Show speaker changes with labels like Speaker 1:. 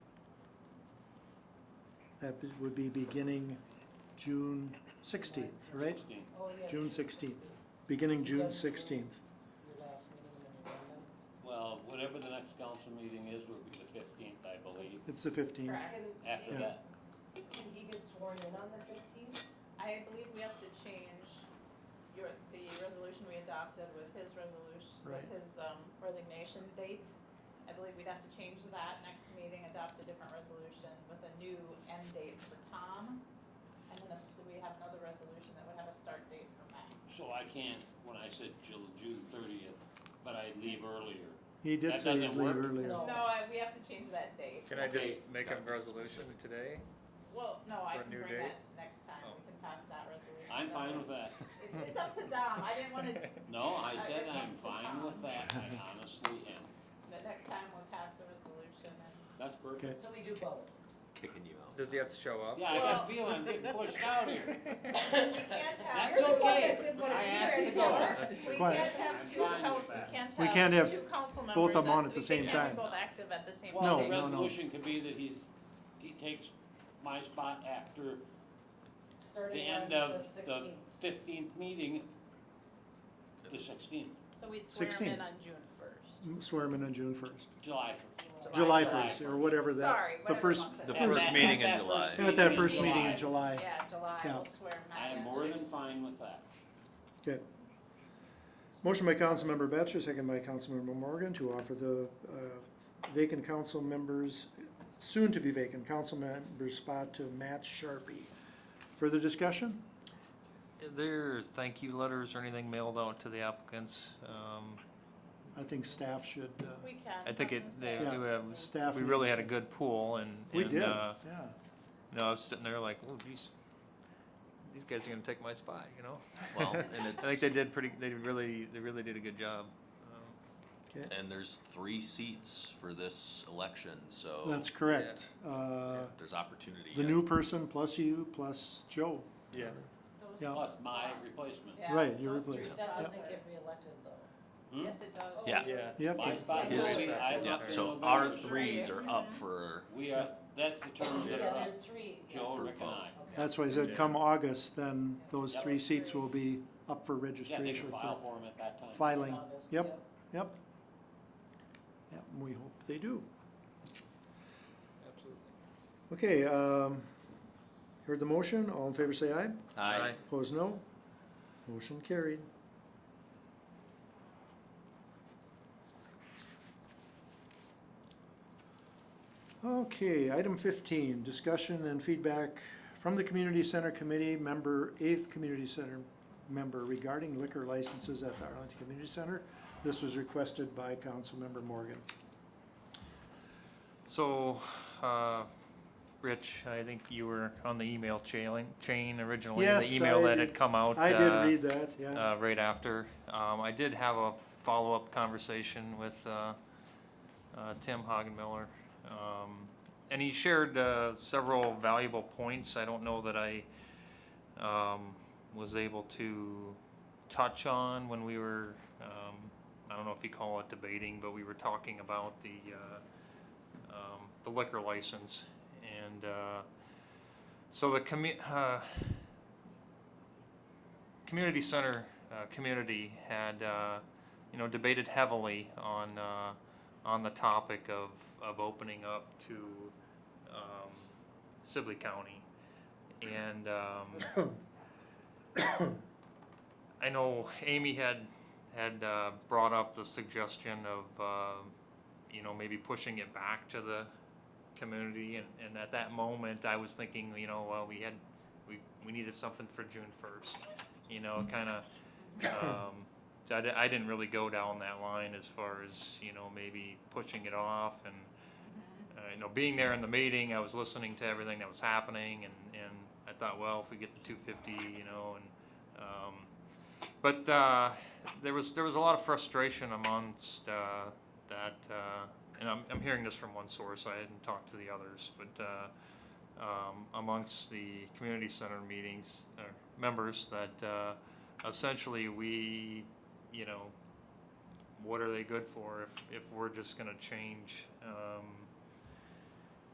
Speaker 1: That be- would be beginning June sixteenth, right?
Speaker 2: Oh, yeah.
Speaker 1: June sixteenth, beginning June sixteenth.
Speaker 2: Your last meeting in November.
Speaker 3: Well, whatever the next council meeting is, would be the fifteenth, I believe.
Speaker 1: It's the fifteenth.
Speaker 4: Correct.
Speaker 3: After
Speaker 1: Yeah.
Speaker 3: that,
Speaker 2: Can he get sworn in on the fifteenth?
Speaker 4: I believe we have to change your, the resolution we adopted with his resolution,
Speaker 1: Right.
Speaker 4: with his um, resignation date. I believe we'd have to change that next meeting, adopt a different resolution with a new end date for Tom. And then a s- we have another resolution that would have a start date for Matt.
Speaker 3: so I can't, when I said Ju- June thirtieth, but I leave earlier.
Speaker 1: He did
Speaker 3: That
Speaker 1: say he'd
Speaker 3: doesn't
Speaker 1: leave
Speaker 3: work?
Speaker 1: earlier.
Speaker 5: Oh.
Speaker 2: No.
Speaker 4: No, I, we have to change that date.
Speaker 5: Can I
Speaker 3: Okay.
Speaker 5: just make a resolution today?
Speaker 4: Well, no, I
Speaker 5: For a
Speaker 4: can
Speaker 5: new
Speaker 4: bring
Speaker 5: date?
Speaker 4: that next time.
Speaker 5: Oh.
Speaker 4: We can pass that resolution.
Speaker 3: I'm fine with that.
Speaker 4: It- It's up to Dom. I didn't wanna,
Speaker 3: No, I
Speaker 4: Uh,
Speaker 3: said
Speaker 4: it's
Speaker 3: I'm
Speaker 4: up to
Speaker 3: fine
Speaker 4: Tom.
Speaker 3: with that, I honestly am.
Speaker 4: but next time we'll pass the resolution and
Speaker 3: That's perfect.
Speaker 2: So we do both.
Speaker 6: kicking you out.
Speaker 5: Does he have to show up?
Speaker 3: Yeah, I
Speaker 4: Well-
Speaker 3: got a feeling I'm getting pushed out here.
Speaker 4: We can't have.
Speaker 3: That's okay,
Speaker 2: what
Speaker 3: I
Speaker 2: it
Speaker 3: asked to
Speaker 2: is.
Speaker 3: go.
Speaker 4: We
Speaker 1: Quiet.
Speaker 4: can't have
Speaker 3: I'm
Speaker 4: two,
Speaker 3: fine
Speaker 4: coun-
Speaker 3: with that.
Speaker 4: we can't have.
Speaker 1: We can't have
Speaker 4: two council
Speaker 1: both of them
Speaker 4: members
Speaker 1: on at the same
Speaker 4: We can't
Speaker 1: time.
Speaker 4: be both active at the same
Speaker 3: Well,
Speaker 1: No,
Speaker 3: the
Speaker 4: time.
Speaker 1: no, no.
Speaker 3: resolution could be that he's, he takes my spot after the
Speaker 2: Starting on
Speaker 3: end
Speaker 2: the
Speaker 3: of the
Speaker 2: sixteenth.
Speaker 3: fifteenth meeting, the sixteenth,
Speaker 4: So we'd swear them in
Speaker 1: 16th.
Speaker 4: on June first.
Speaker 1: Swear him in on June first,
Speaker 3: July
Speaker 1: July
Speaker 3: July
Speaker 1: first, or whatever
Speaker 4: Sorry,
Speaker 1: that, the
Speaker 4: whatever
Speaker 1: first,
Speaker 4: month it
Speaker 6: The
Speaker 4: is.
Speaker 3: At
Speaker 6: first
Speaker 3: that-
Speaker 6: meeting
Speaker 3: at
Speaker 6: in
Speaker 3: that
Speaker 6: July.
Speaker 3: first
Speaker 1: at that first
Speaker 3: July.
Speaker 1: meeting in July.
Speaker 4: Yeah, July,
Speaker 1: Yeah.
Speaker 4: we'll swear them
Speaker 3: first. I am
Speaker 4: in.
Speaker 3: more than fine with that.
Speaker 1: Good. Motion by Councilmember Batchor, second by Councilmember Morgan to offer the uh, vacant council members, soon to be vacant council member spot to Matt Sharpie. Further discussion?
Speaker 5: Are there thank you letters or anything mailed out to the applicants? Um,
Speaker 1: I think staff should, uh,
Speaker 4: We can.
Speaker 5: I think it,
Speaker 4: that's what
Speaker 5: they,
Speaker 4: I'm
Speaker 5: they
Speaker 4: saying.
Speaker 1: Yeah.
Speaker 5: have-
Speaker 1: Staff
Speaker 5: we really
Speaker 1: needs-
Speaker 5: had a good pool and,
Speaker 1: we
Speaker 5: and,
Speaker 1: did,
Speaker 5: uh,
Speaker 1: yeah.
Speaker 5: you know, I was sitting there like, oh geez, these guys are gonna take my spot, you know?
Speaker 6: Well, and
Speaker 5: I think
Speaker 6: it's-
Speaker 5: they did pretty, they really, they really did a good job. Um,
Speaker 1: Okay.
Speaker 6: And there's three seats for this election, so.
Speaker 1: That's correct. Uh,
Speaker 6: There's opportunity.
Speaker 1: The
Speaker 6: yet.
Speaker 1: new person plus you plus Joe.
Speaker 4: Those
Speaker 1: Yeah.
Speaker 3: Plus my
Speaker 4: spots.
Speaker 3: replacement.
Speaker 4: Yeah,
Speaker 1: Right, your
Speaker 4: those three
Speaker 1: replacement.
Speaker 4: spots
Speaker 2: That
Speaker 4: are-
Speaker 2: doesn't get reelected though.
Speaker 3: Hmm?
Speaker 4: Yes, it does.
Speaker 6: Yeah.
Speaker 1: Yep.
Speaker 3: My spot
Speaker 2: His-
Speaker 3: is, I'm
Speaker 6: Yeah, Mm-hmm.
Speaker 3: up to
Speaker 6: so
Speaker 3: November.
Speaker 6: our
Speaker 4: three.
Speaker 6: threes are up for,
Speaker 3: We are, that's the terms
Speaker 2: Yeah,
Speaker 3: that are up,
Speaker 2: there's three. yeah.
Speaker 3: Joe,
Speaker 6: For
Speaker 3: Rick and
Speaker 6: vote.
Speaker 3: I.
Speaker 2: Okay.
Speaker 1: That's why I said
Speaker 3: uh,
Speaker 5: Yeah.
Speaker 1: come August, then those
Speaker 3: Yep.
Speaker 1: three seats will be up for
Speaker 3: Yeah, they can
Speaker 1: registration
Speaker 3: file
Speaker 1: for
Speaker 3: for him at that time.
Speaker 1: filing.
Speaker 2: August,
Speaker 1: Yep, yep. Yep, and we hope they do.
Speaker 5: Absolutely.
Speaker 1: Okay, um, heard the motion, all in favor say aye.
Speaker 6: I,
Speaker 1: Opposed, no. Motion carried. Okay, item fifteen, discussion and feedback from the Community Center Committee member, eighth Community Center member regarding liquor licenses at the Arlington Community Center. This was requested by Councilmember Morgan.
Speaker 5: So, uh, Rich, I think you were on the email chain, chain originally,
Speaker 1: Yes,
Speaker 5: the email
Speaker 1: I
Speaker 5: that
Speaker 1: did-
Speaker 5: had come out.
Speaker 1: I
Speaker 5: uh,
Speaker 1: did read that, yeah.
Speaker 5: uh, right after. Um, I did have a follow-up conversation with uh, uh, Tim Hagenmiller, um, and he shared uh, several valuable points. I don't know that I um, was able to touch on when we were. Um, I don't know if you call it debating, but we were talking about the uh, um, the liquor license, and uh, so the commu- uh, community center uh, community had uh, you know debated heavily on uh, on the topic of, of opening up to um, Sibley County, and um, I know Amy had had uh, brought up the suggestion of uh, you know maybe pushing it back to the community, and, and at that moment I was thinking you know well we had we, we needed something for June first you know, kind of. Um, so I, di- I didn't really go down that line as far as you know maybe pushing it off and uh, you know being there in the meeting. I was listening to everything that was happening, and and I thought, well, if we get the 250, you know, and um, but uh, there was there was a lot of frustration amongst uh, that, uh, and I'm, I'm hearing this from one source. I hadn't talked to the others, but. Uh, um, amongst the community center meetings or members that uh, essentially we, you know, what are they good for if, if we're just going to change um,